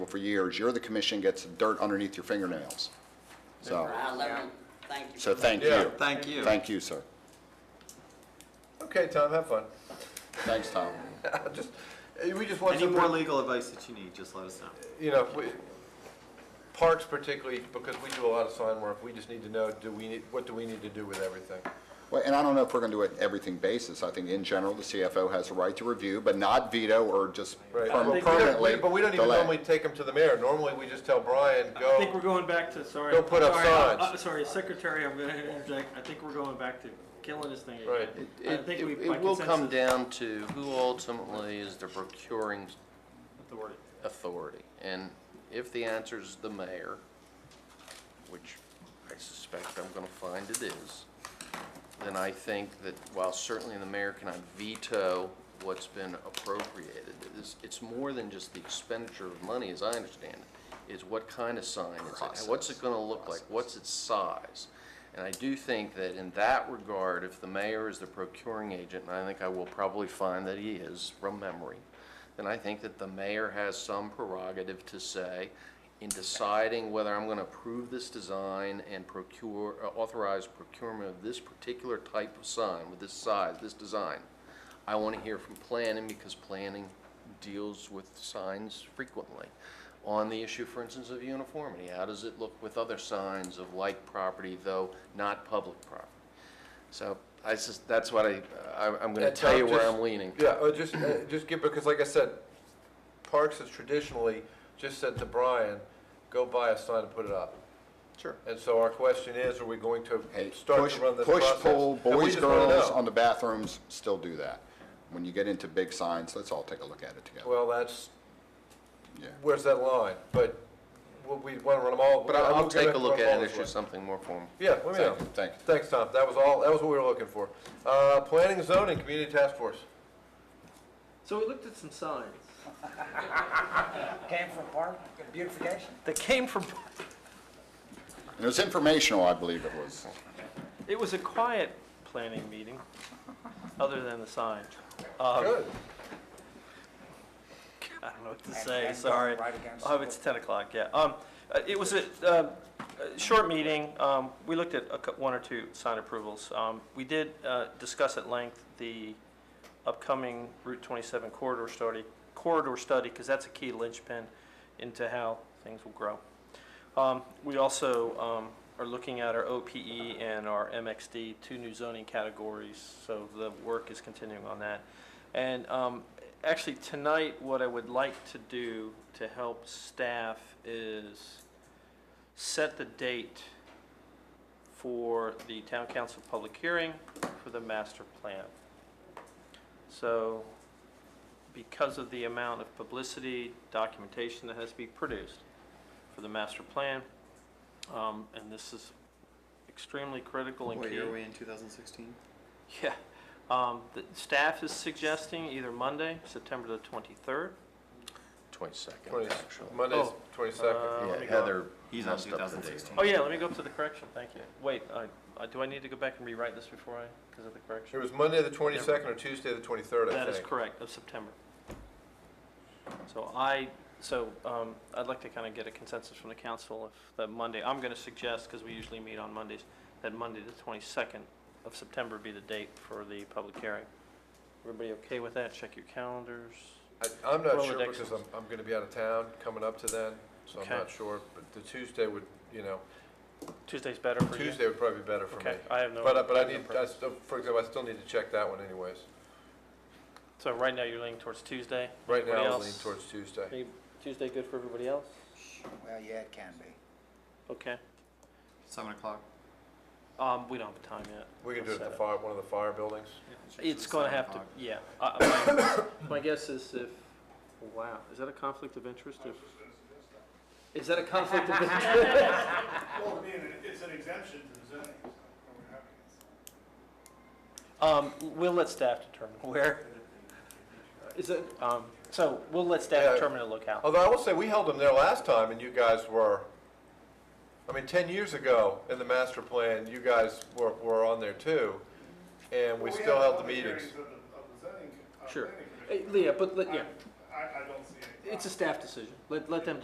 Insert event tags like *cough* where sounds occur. for years, you're the commission gets dirt underneath your fingernails. So, I learned, thank you. so thank Yeah. you. Thank you. Thank you, sir. Okay, Tom, have fun. Thanks, Tom. Just, eh, we just want Any more something, legal advice that you need, just let us know. you know, we- parks particularly, because we do a lot of sign work, we just need to know, do we, need what do we need to do with everything? Well, and I don't know if we're going to do it everything basis. I think in general, the CFO has a right to review, but not veto or just perma- Right. think we don't- permanently But we don't even delay. normally take them to the mayor. Normally, we just tell Brian, I think we're go. going back to, sorry. Go put up sorry, I- signs. I- Sorry, Secretary, I'm gonna interject, I think we're going back to killing this thing. again. Right. I It, think it- we, it by will come consensus, down to who ultimately is the procuring the word. authority. And if the answer is the mayor, which I suspect I'm gonna find it is, then I think that while certainly the mayor cannot veto what's been appropriated, it's, it's more than just the expenditure of money, as I understand it, is what kind of sign is it? What's it gonna look like? What's its size? And I do think that in that regard, if the mayor is the procuring agent, and I think I will probably find that he is from memory, then I think that the mayor has some prerogative to say, in deciding whether I'm gonna approve this design and procure, uh, authorize procurement of this particular type of sign with this size, this design, I wanna hear from planning because planning deals with signs frequently. On the issue, for instance, of uniformity, how does it look with other signs of like property, though not public property? So I just, that's what I, I, I'm gonna And tell you Tom, where just- I'm leaning. Yeah, or just, eh, just give, because like I said, Parks has traditionally just said to Brian, go buy a sign and put it up. Sure. And so our question is, are we going to Hey, start push, to run this push, process? pull, And we boys, just wanna girls know. on the bathrooms, still do that. When you get into big signs, let's all take a look at it together. Well, that's, Yeah. where's that line? But we want to run them all. But I'll, I'll take a look at it, Issue issue something more formal. Yeah, let me know. Thank you, thank you. Thanks, Tom. That was all, that was what we were looking for. Uh, planning, and zoning, community task force. So we looked at some signs. *laughs* Came from park, beautification? That came from. And it was informational, I believe it was. It was a quiet planning meeting, other than the sign. Um, Good. I don't know what to And- say, and sorry. going right against Oh, the- it's 10 o'clock, yeah. Um, uh, It was a uh, a short meeting. Um, We looked at a cou- one or two sign approvals. Um, We did uh, discuss at length the upcoming Route 27 corridor study, corridor study, because that's a key linchpin into how things will grow. Um, We also um, are looking at our OPE and our MXD, two new zoning categories, so the work is continuing on that. And um, actually, tonight, what I would like to do to help staff is set the date for the town council public hearing for the master plan. So because of the amount of publicity, documentation that has to be produced for the master plan, um, and this is extremely critical and key. What year are we in, 2016? *laughs* Yeah, um, the staff is suggesting either Monday, September the twenty-third. Twenty-second, Twenty- actually. Monday's Oh. twenty-second. Yeah, Heather He's on messed up the date. 2016. Oh, yeah, let me go up to the correction, thank you. Wait, I, I, do I need to go back and rewrite this before I, because of the It correction? was Monday the twenty-second or Tuesday the twenty-third, I think. That is correct, of September. So I, so, um, I'd like to kind of get a consensus from the council if that Monday, I'm gonna suggest, because we usually meet on Mondays, that Monday the twenty-second of September be the date for the public hearing. Everybody okay with that? Check your calendars. I- I'm not sure Rolodex. because I'm, I'm gonna be out of town coming up to then, so I'm Okay. not sure. But the Tuesday would, you know, Tuesday's better for you? Tuesday would probably be better for me. Okay, I have no. But, I- but I no need, I preference. still, for example, I still need to check that one anyways. uh, So right now, you're leaning towards Tuesday? Right Everybody now, I lean else? towards Tuesday. Any- Tuesday good for everybody else? Well, yeah, it can be. Okay. 7 o'clock. Um, we don't have a time yet. We can do it at Set the fire, one of the fire buildings. It's gonna Seven have to, o'clock. yeah. I- I- My *coughs* my guess is if, wow, is that a conflict of interest if? Is that a conflict *laughs* of interest? Well, I mean, it- it's an exemption to the zoning, so we're happy. Um, we'll let staff determine where. Is it, um, so we'll let Yeah. Oh. staff determine the locale. Although I will say, we held them there last time, and you guys were, I mean, 10 years ago, in the master plan, you guys were, were on there too, and we Well, still have held the public meetings. hearings Of the, of the zoning, co- uh, Sure. planning Uh, commission. Leah, but, let- yeah, I, I- I don't see any. it's a staff decision. Let, let them